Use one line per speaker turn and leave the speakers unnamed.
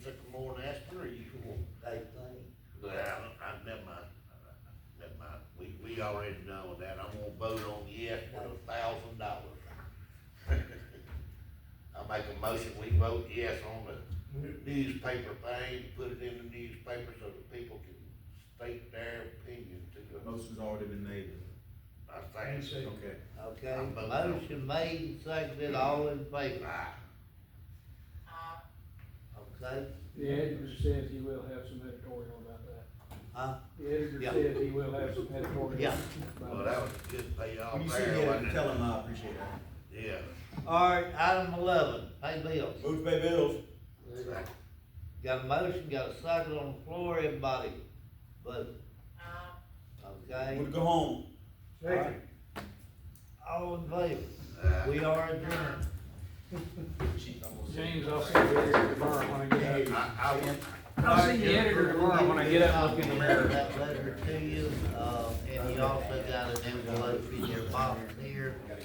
yes, on the newspaper thing, put it in the newspaper so that people can state their opinion to the,
Motion's already been made.
I think.
Okay.
Okay,
I'm voting no.
motion made, and seconded, all in favor,
Aye.
okay?
The editor says he will have some editorial about that.
Huh?
The editor
Yeah.
says he will have some editorial.
Yeah.
about
Well, that was a good payoff
When you see
there,
it,
wasn't it?
tell him I appreciate it.
Yeah.
Alright, item eleven, pay bills.
Move to pay bills.
Got a motion, got a second on the floor, everybody, but, okay?
Wanna go home.
Second.
All in favor,
Aye.
we are adjourned.
James, I'll see the editor tomorrow when I get up.
I, I,
I'll see the editor tomorrow when I get up, and look in the mirror.
That letter to you, uh, and you also got an envelope in your box here